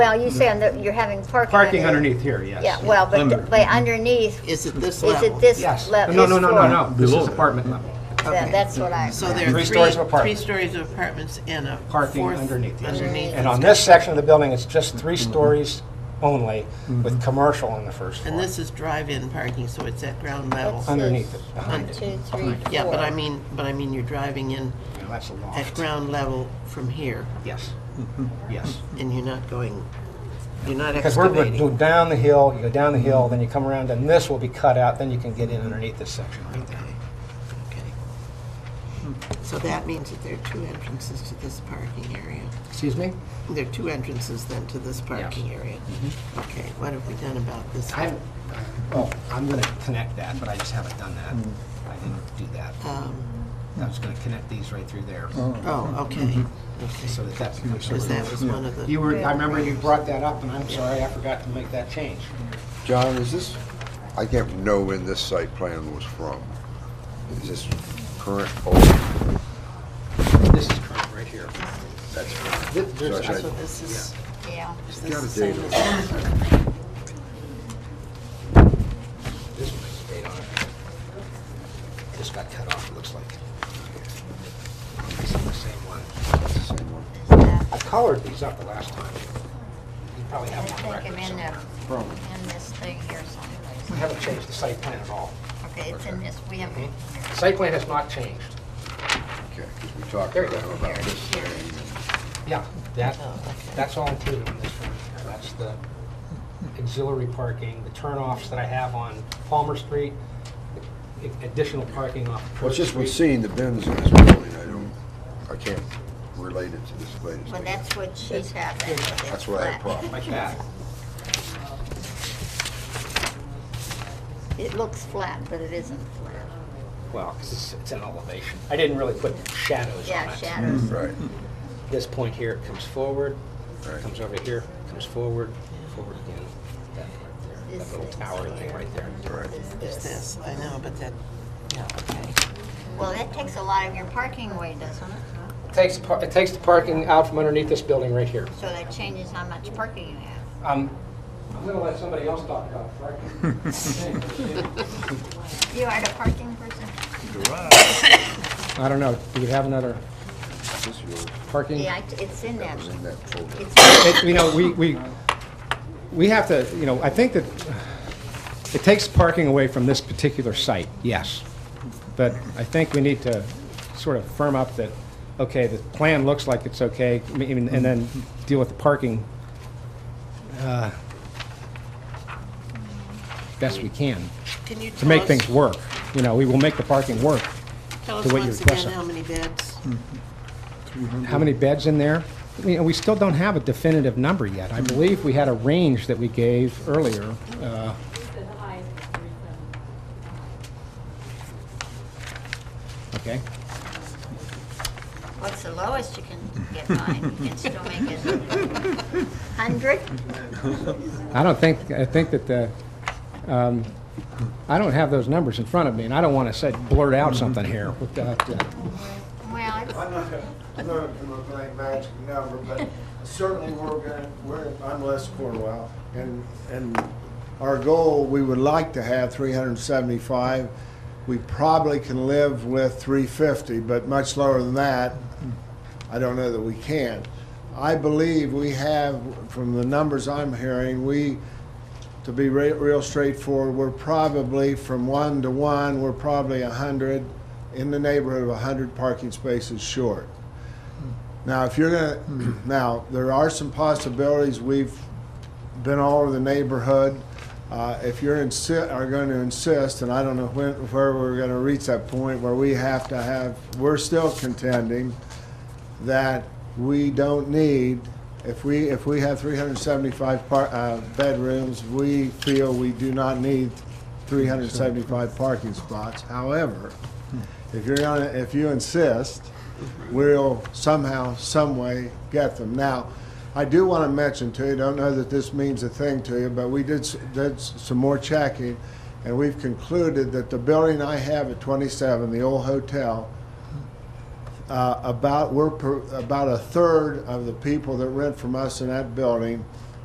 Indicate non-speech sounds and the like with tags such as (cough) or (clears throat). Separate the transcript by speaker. Speaker 1: Well, you saying that you're having parking.
Speaker 2: Parking underneath here, yes.
Speaker 1: Yeah, well, but,
Speaker 2: Under.
Speaker 1: the- but underneath,
Speaker 3: Is it this
Speaker 1: is
Speaker 3: level?
Speaker 1: it this
Speaker 4: Yes.
Speaker 1: level?
Speaker 2: No, no, no, no, no, this is apartment level.
Speaker 3: Okay.
Speaker 1: That's what I,
Speaker 3: So there
Speaker 4: Three
Speaker 3: are three,
Speaker 4: stories of apartment.
Speaker 3: three stories of apartments and a
Speaker 2: Parking
Speaker 3: fourth
Speaker 2: underneath, yes.
Speaker 3: underneath.
Speaker 4: And on this section of the building, it's just three stories only, with commercial on the first
Speaker 3: And
Speaker 4: floor,
Speaker 3: this is drive-in parking, so it's at ground level.
Speaker 4: underneath it, behind
Speaker 1: one,
Speaker 4: it.
Speaker 1: two, three, four.
Speaker 3: Yeah, but I mean, but I mean, you're driving in
Speaker 4: And That's a
Speaker 3: at
Speaker 4: loft.
Speaker 3: ground level from here,
Speaker 4: Yes, yes.
Speaker 3: and you're not going, you're not
Speaker 4: Because we're going to
Speaker 3: excavating.
Speaker 4: go down the hill, you go down the hill, then you come around, and this will be cut out, then you can get in underneath this section right there.
Speaker 3: Okay, okay. Hmm. So that means that there are two entrances to this parking area.
Speaker 4: Excuse me?
Speaker 3: There are two entrances then to this parking area. Okay, what have we done about this?
Speaker 4: I'm, uh, well, I'm going to connect that, but I just haven't done that. I didn't do that.
Speaker 3: Um,
Speaker 4: I was going to connect these right through there,
Speaker 3: Oh, okay, okay.
Speaker 4: so that that becomes...
Speaker 3: Because that was one of
Speaker 4: You
Speaker 3: the,
Speaker 4: were, I remember you brought that up, and I'm sorry, I forgot to make that change.
Speaker 5: John, is this, I can't know when this site plan was from. Is this current, oh,
Speaker 4: This is current, right here.
Speaker 5: that's current.
Speaker 4: Th- there's-
Speaker 5: So I
Speaker 3: so
Speaker 5: should-
Speaker 3: this is,
Speaker 1: Yeah,
Speaker 3: is
Speaker 5: Got
Speaker 3: this
Speaker 5: a
Speaker 3: the same
Speaker 5: date
Speaker 3: as?
Speaker 4: This one has a date on it. This got cut off, it looks like. This is the same one.
Speaker 5: It's the same one.
Speaker 1: yeah.
Speaker 4: I colored these up the last time. You probably
Speaker 1: I
Speaker 4: have them on
Speaker 1: think I'm
Speaker 4: record
Speaker 1: in
Speaker 4: somewhere.
Speaker 5: Probably.
Speaker 1: the, in this thing here
Speaker 4: We
Speaker 1: someplace.
Speaker 4: haven't changed the site plan at all.
Speaker 1: Okay, it's in this, we have.
Speaker 4: Mhm. The Site plan has not changed.
Speaker 5: Okay, because we talked
Speaker 4: There you
Speaker 5: about
Speaker 4: go.
Speaker 5: about this thing.
Speaker 4: Yeah, that,
Speaker 1: Oh,
Speaker 4: that's all included in this one. That's the auxiliary parking, the turnoffs that I have on Palmer Street, a- additional parking off Church
Speaker 5: Well, it's just we're
Speaker 4: Street.
Speaker 5: seeing the bins in this building, I don't, I can't relate it to this latest
Speaker 1: Well,
Speaker 5: thing.
Speaker 1: that's what she's having. with this
Speaker 5: That's why I had a
Speaker 1: flat.
Speaker 5: problem.
Speaker 4: Like that.
Speaker 1: It looks flat, but it isn't flat.
Speaker 4: Well, 'cause it's, it's an elevation. I didn't really put shadows on
Speaker 1: Yeah,
Speaker 4: it.
Speaker 1: shadows.
Speaker 5: Right,
Speaker 4: This point here comes forward,
Speaker 5: Right.
Speaker 4: comes over here, comes forward, forward again. That part there,
Speaker 1: This
Speaker 4: that little
Speaker 1: thing.
Speaker 4: tower thing right there.
Speaker 5: right.
Speaker 3: Is this, I know, but that, yeah, okay.
Speaker 1: Well, that takes a lot of your parking away, doesn't it?
Speaker 4: Takes, par- it takes the parking out from underneath this building right here.
Speaker 1: So that changes how much parking you have.
Speaker 4: Um, I'm gonna let somebody else talk about parking.
Speaker 2: (laughs)
Speaker 1: You are the parking person?
Speaker 4: I don't know, do we have another
Speaker 5: This is yours.
Speaker 4: parking?
Speaker 1: Yeah, I- it's in
Speaker 5: That
Speaker 1: that.
Speaker 5: was in that folder.
Speaker 1: It's,
Speaker 2: It- You know, we, we, we have to, you know, I think that it takes parking away from this particular site, yes. But I think we need to sort of firm up that, okay, the plan looks like it's okay, I mean, and then deal with the parking uh, best we can
Speaker 3: Can you
Speaker 2: to
Speaker 3: tell
Speaker 2: make
Speaker 3: us-
Speaker 2: things work. You know, we will make the parking work.
Speaker 3: Tell
Speaker 2: to
Speaker 3: us
Speaker 2: what you
Speaker 3: once
Speaker 2: request
Speaker 3: again
Speaker 2: of-
Speaker 3: how many beds?
Speaker 2: how many beds in there? You know, we still don't have a definitive number yet. I believe we had a range that we gave earlier. uh, Okay,
Speaker 1: what's the lowest you can get by? You can still make it 100?
Speaker 2: I don't think, I think that the, um, I don't have those numbers in front of me, and I don't want to say, blurt out something here without, uh,
Speaker 1: Well, it's-
Speaker 6: I'm not gonna, I'm not gonna play magic number, but certainly we're gonna, we're, I'm Les Cornwell, and, and our goal, we would like to have three hundred and seventy-five. We probably can live with three fifty, but much lower than that, I don't know that we can. I believe we have, from the numbers I'm hearing, we, to be re- real straightforward, we're probably from one to one, we're probably a hundred, in the neighborhood of a hundred parking spaces short. Now, if you're gonna, (clears throat) now, there are some possibilities, we've been all over the neighborhood. Uh, if you're insi- are gonna insist, and I don't know when, where we're gonna reach that point where we have to have, we're still contending that we don't need, if we, if we have 375 par, uh, bedrooms, we feel we do not need 375 parking spots. However, if you're gonna, if you insist, we'll somehow, some way get them. Now, I do want to mention to you, don't know that this means a thing to you, but we did, s- did s- some more checking, and we've concluded that the building I have at 27, the old hotel, uh, about, we're, per- about a third of the people that rent from us in that building